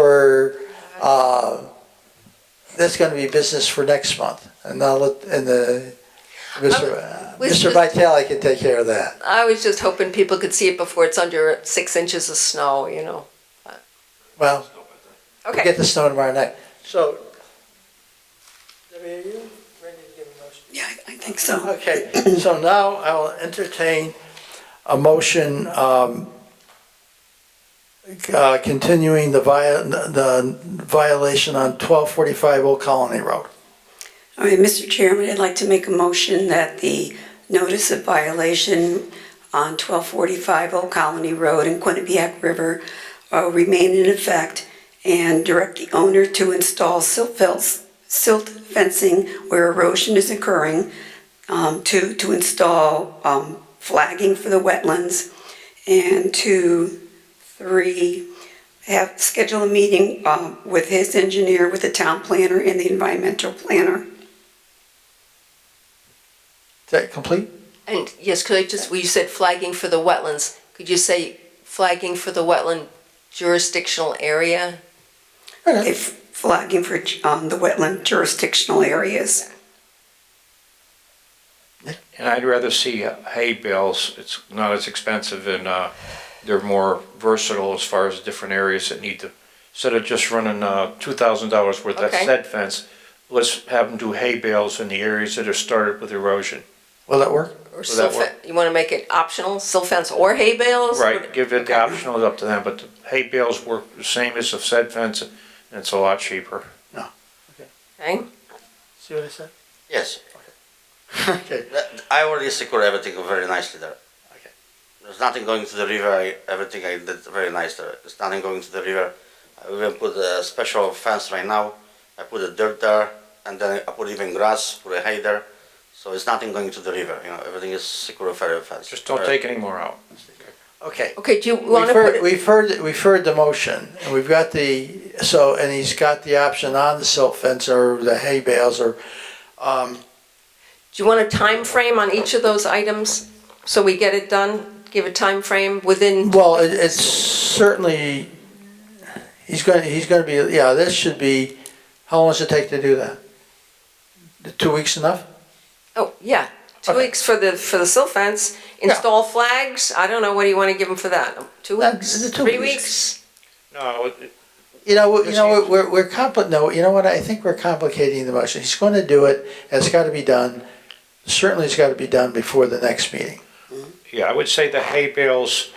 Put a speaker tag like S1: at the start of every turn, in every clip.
S1: for, uh, that's gonna be business for next month. And I'll let, and the, Mr. uh,
S2: was
S1: Mr.
S2: just-
S1: Vitale can take care of that.
S2: I was just hoping people could see it before it's under six inches of snow, you know.
S1: Well, we'll
S2: Okay.
S1: get the snow tomorrow night. So, Debbie, are you ready to give a motion?
S3: Yeah, I- I think so.
S1: Okay, so now I will entertain a motion um, uh, continuing the vi- the violation on 1245 Old Colony Road.
S3: All right, Mr. Chairman, I'd like to make a motion that the notice of violation on 1245 Old Colony Road in Quinnipiac River uh, remain in effect and direct the owner to install silt fence- silt fencing where erosion is occurring, um, to, to install um, flagging for the wetlands, and to, three, have, schedule a meeting um, with his engineer, with the town planner and the environmental planner.
S1: Is that complete?
S2: And yes, could I just, well, you said flagging for the wetlands. Could you say flagging for the wetland jurisdictional area?
S3: If flagging for um, the wetland jurisdictional areas.
S4: And I'd rather see hay bales. It's not as expensive and uh, they're more versatile as far as different areas that need to. Instead of just running uh, $2,000 worth of
S2: Okay.
S4: said fence, let's have them do hay bales in the areas that are started with erosion.
S1: Will that work?
S2: Or
S4: Would that
S2: silt fen- You want to make it optional, silt fence or hay bales?
S4: Right, give it the optional up to them, but the hay bales work the same as the said fence and it's a lot cheaper.
S2: Okay.
S1: See what I said?
S5: Yes,
S1: Okay,
S5: that- I already secured everything very nicely there.
S1: Okay.
S5: There's nothing going to the river, I- everything I did very nice there. There's nothing going to the river. I even put a special fence right now. I put the dirt there, and then I put even grass, put a hay there. So it's nothing going to the river, you know, everything is secure very fence.
S4: Just don't take any more out.
S1: okay.
S2: Okay, do you want
S1: We've
S2: to put
S1: heard,
S2: it?
S1: we've heard, we've heard the motion, and we've got the, so, and he's got the option on the silt fence or the hay bales or, um,
S2: Do you want a time frame on each of those items so we get it done? Give a time frame within,
S1: Well, it, it's certainly, he's gonna, he's gonna be, yeah, this should be, how long does it take to do that? The Two weeks enough?
S2: oh, yeah, two
S1: Okay.
S2: weeks for the, for the silt fence, install flags? I don't know, what do you want to give them for that? Two
S1: Uh,
S2: weeks,
S1: the two
S2: three
S1: weeks.
S2: weeks?
S4: No, it-
S1: You know, you
S4: Yes,
S1: know,
S4: he-
S1: we're, we're compli, no, you know what, I think we're complicating the motion. He's gonna do it, and it's gotta be done, certainly it's gotta be done before the next meeting.
S4: yeah, I would say the hay bales,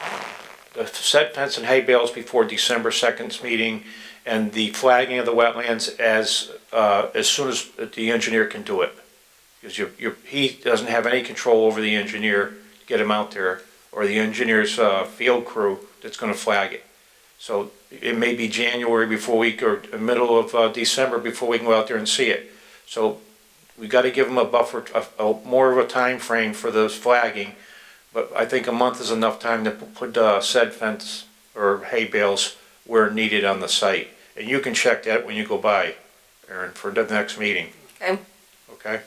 S4: the said fence and hay bales before December 2nd's meeting and the flagging of the wetlands as, uh, as soon as the engineer can do it. Because you, you, he doesn't have any control over the engineer, to get him out there, or the engineer's, uh, field crew that's gonna flag it. So it may be January before we, or middle of, uh, December before we can go out there and see it. So we gotta give him a buffer, a, a, more of a time frame for those flagging. But I think a month is enough time to put uh, said fence or hay bales where needed on the site. And you can check that when you go by, Aaron, for the next meeting.
S2: Okay.
S4: Okay?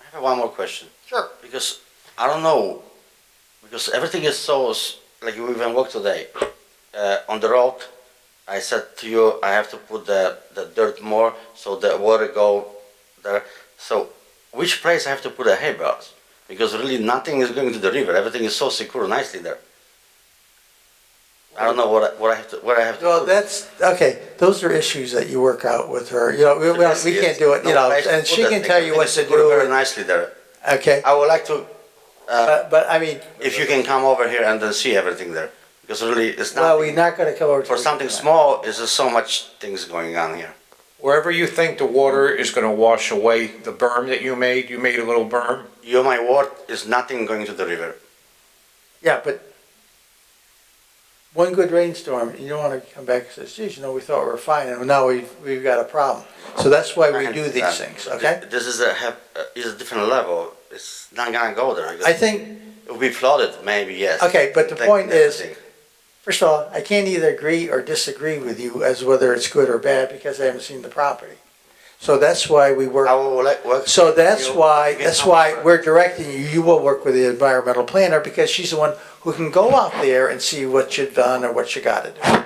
S5: I have one more question.
S1: Sure.
S5: Because I don't know, because everything is so, s- like you even walk today, uh, on the road, I said to you, I have to put the, the dirt more so the water go there. So which place I have to put the hay bales? Because really nothing is going to the river, everything is so secure nicely there. I don't know what I, what I have to, what I have to.
S1: Well,
S5: put.
S1: that's, okay, those are issues that you work out with her, you know, we, we
S5: Yes,
S1: we
S5: yes.
S1: can't do it, you
S5: No
S1: know,
S5: place to
S1: and
S5: put
S1: she
S5: that
S1: can
S5: thing.
S1: tell you what
S5: Everything
S1: to
S5: is secured Very
S1: do,
S5: nicely there.
S1: okay?
S5: I would like to, uh,
S1: But, but I mean,
S5: if you can come over here and then see everything there, because really it's not.
S1: well, we're not gonna come over to.
S5: For something small, is there so much things going on here?
S4: Wherever you think the water is gonna wash away the berm that you made, you made a little berm.
S5: You, my word, is nothing going to the river.
S1: Yeah, but one good rainstorm, you don't want to come back and say, geez, you know, we thought we were fine, and now we've, we've got a problem. So that's why we do these things, okay?
S5: Th- This is a, have, uh, is a different level. It's not gonna go there.
S1: I
S5: because
S1: think,
S5: It will be flooded, maybe, yes.
S1: Okay, but the
S5: Like
S1: point is-
S5: everything.
S1: first of all, I can't either agree or disagree with you as whether it's good or bad, because I haven't seen the property. So that's why we work.
S5: I will let- work
S1: So
S5: with
S1: that's
S5: you.
S1: why,
S5: You can
S1: that's
S5: come
S1: why
S5: over.
S1: we're directing you, you will work with the environmental planner, because she's the one who can go out there and see what you've done or what you gotta do.